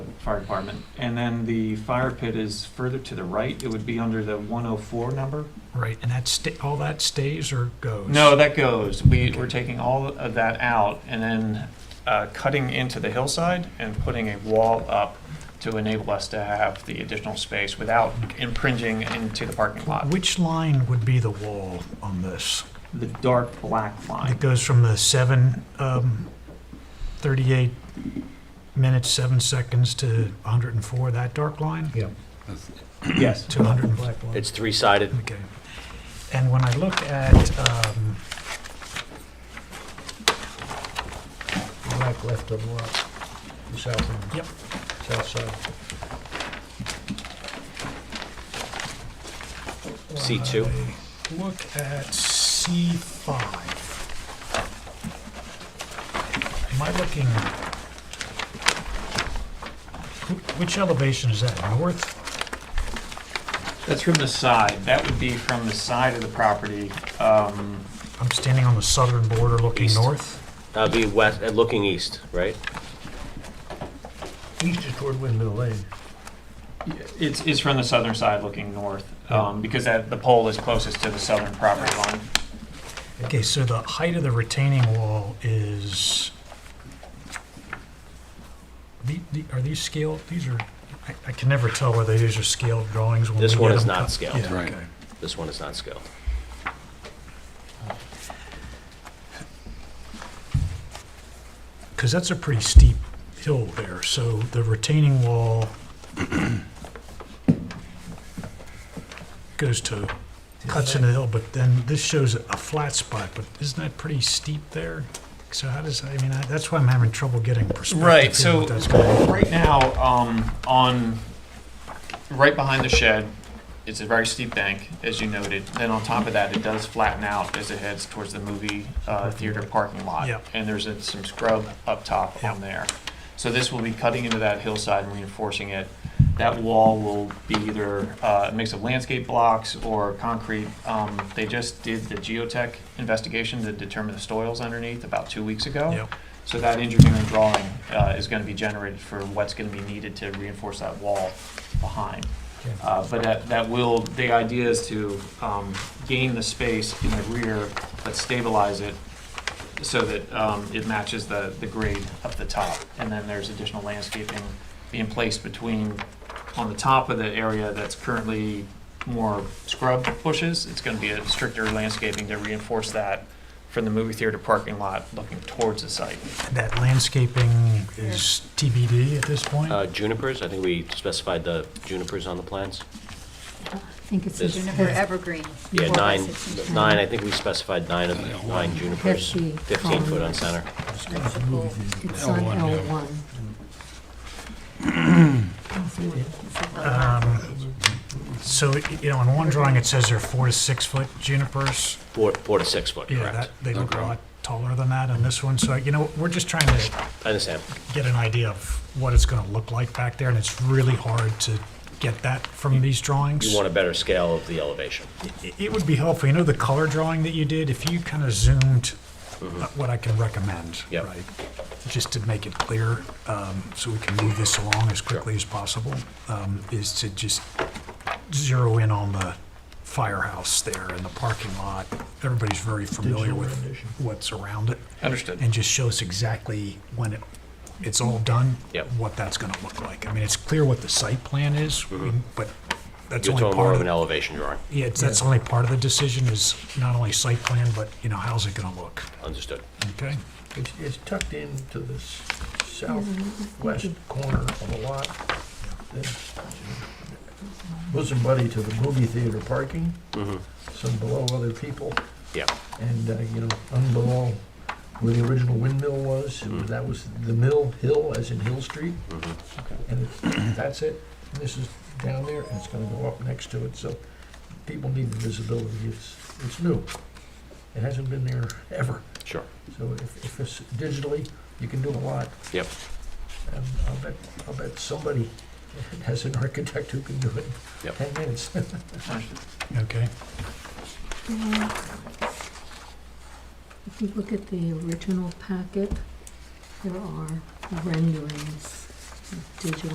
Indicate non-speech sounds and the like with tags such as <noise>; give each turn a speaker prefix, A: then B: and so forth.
A: fire department. And then the fire pit is further to the right. It would be under the 104 number.
B: Right, and that sta, all that stays or goes?
A: No, that goes. We, we're taking all of that out and then uh, cutting into the hillside and putting a wall up to enable us to have the additional space without impringing into the parking lot.
B: Which line would be the wall on this?
A: The dark black
B: It
A: line. <clears throat>
B: goes from the seven, um, thirty-eight minutes, seven seconds to hundred and four, that dark line?
C: Yeah.
A: Yes.
B: To hundred and black line?
D: It's three-sided.
B: Okay. And when I look at, um,
C: Black left of lot, the south end.
B: Yep.
C: South side.
D: C2.
B: when I Look at C five. Am I looking? wh- Which elevation is that, north?
A: That's from the side. That would be from the side of the property. Um,
B: I'm standing on the southern border looking
D: East.
B: north.
D: That'd be west, uh, looking east, right?
C: East is toward Windmill Lane.
A: It's, it's from the southern side looking north, um, because that, the pole is closest to the southern property line.
B: Okay, so the height of the retaining wall is, the- the- are these scaled, these are, I- I can never tell whether these are scaled drawings. when
D: This
B: we
D: one
B: get
D: is
B: them
D: not
B: cut.
D: scaled.
B: Yeah,
E: Right.
B: okay.
D: This one is not scaled.
B: Because that's a pretty steep hill there, so the retaining wall goes to, cuts into the hill, but then this shows a flat spot, but isn't that pretty steep there? So how does, I mean, I- that's why I'm having trouble getting perspective.
A: Right,
B: here,
A: so
B: what that's gonna be.
A: right now, um, on, right behind the shed, it's a very steep bank, as you noted. Then on top of that, it does flatten out as it heads towards the movie, uh, theater parking lot.
B: Yep.
A: And there's uh, some scrub up top on
B: Yep.
A: there. So this will be cutting into that hillside and reinforcing it. That wall will be either uh, a mix of landscape blocks or concrete. Um, They just did the geotech investigation to determine the soils underneath about two weeks ago.
B: Yep.
A: So that engineering drawing uh, is going to be generated for what's going to be needed to reinforce that wall behind.
C: Okay.
A: Uh, But that, that will, the idea is to um, gain the space in the rear, but stabilize it so that um, it matches the, the grade up the top. And then there's additional landscaping being placed between, on the top of the area that's currently more scrub bushes. It's going to be a stricter landscaping to reinforce that from the movie theater parking lot looking towards the site.
B: That landscaping is TBD at this point?
D: Uh, junipers, I think we specified the junipers on the plans.
F: I think it's the
D: This-
F: juniper evergreen.
D: Yeah,
F: Four by
D: nine,
F: six inch
D: nine, I think we specified nine of, nine junipers,
F: Fifty
D: fifteen foot on
F: columns.
D: center.
F: It's on
E: L1,
F: L
E: yeah.
F: one.
B: Um, So, you know, in one drawing, it says they're four to six foot junipers.
D: Four, four to six foot,
B: Yeah, that,
D: correct.
B: they look a
E: Okay.
B: lot taller than that on this one. So, you know, we're just trying to
D: I understand.
B: get an idea of what it's gonna look like back there, and it's really hard to get that from these drawings.
D: You want a better scale of the elevation.
B: It- It would be helpful, you know, the color drawing that you did, if you kind of zoomed what I can recommend,
D: Mm-hmm. Yep.
B: right? Just to make it clear, um, so we can move this along as quickly as possible, um, is to just zero in on the firehouse there and the parking lot. Everybody's very familiar with what's around it,
A: Understood.
B: and just show us exactly when it, it's all done.
D: Yep.
B: What that's gonna look like. I mean, it's clear what the site plan is, we- but that's
D: You're
B: only part
D: talking Mm-hmm. more
B: of
D: of
B: it.
D: an elevation drawing,
B: Yeah, it's- that's only part of the decision is not only site plan, but, you know, how's it gonna look,
D: understood.
B: okay?
C: It's, it's tucked into the s- southwest corner of a lot. that's Bosom buddy to the movie theater parking, some below other people,
D: Yeah,
C: and, uh, you know, unbelow where the original windmill was,
D: Mm-hmm.
C: it was- that was the mill hill, as in Hill Street. And it's- that's it, And this is down there, and it's gonna go up next to it, so people need the visibility, it's, it's new. It hasn't been there ever.
D: sure.
C: So if, if it's digitally, you can do a lot.
D: Yep.
C: And I'll bet, I'll bet somebody <laughs> has an architect who can do it in
D: Yep.
C: ten minutes.
A: Understood.
B: Okay,
F: <clears throat> If you look at the original packet, there are renderings of digital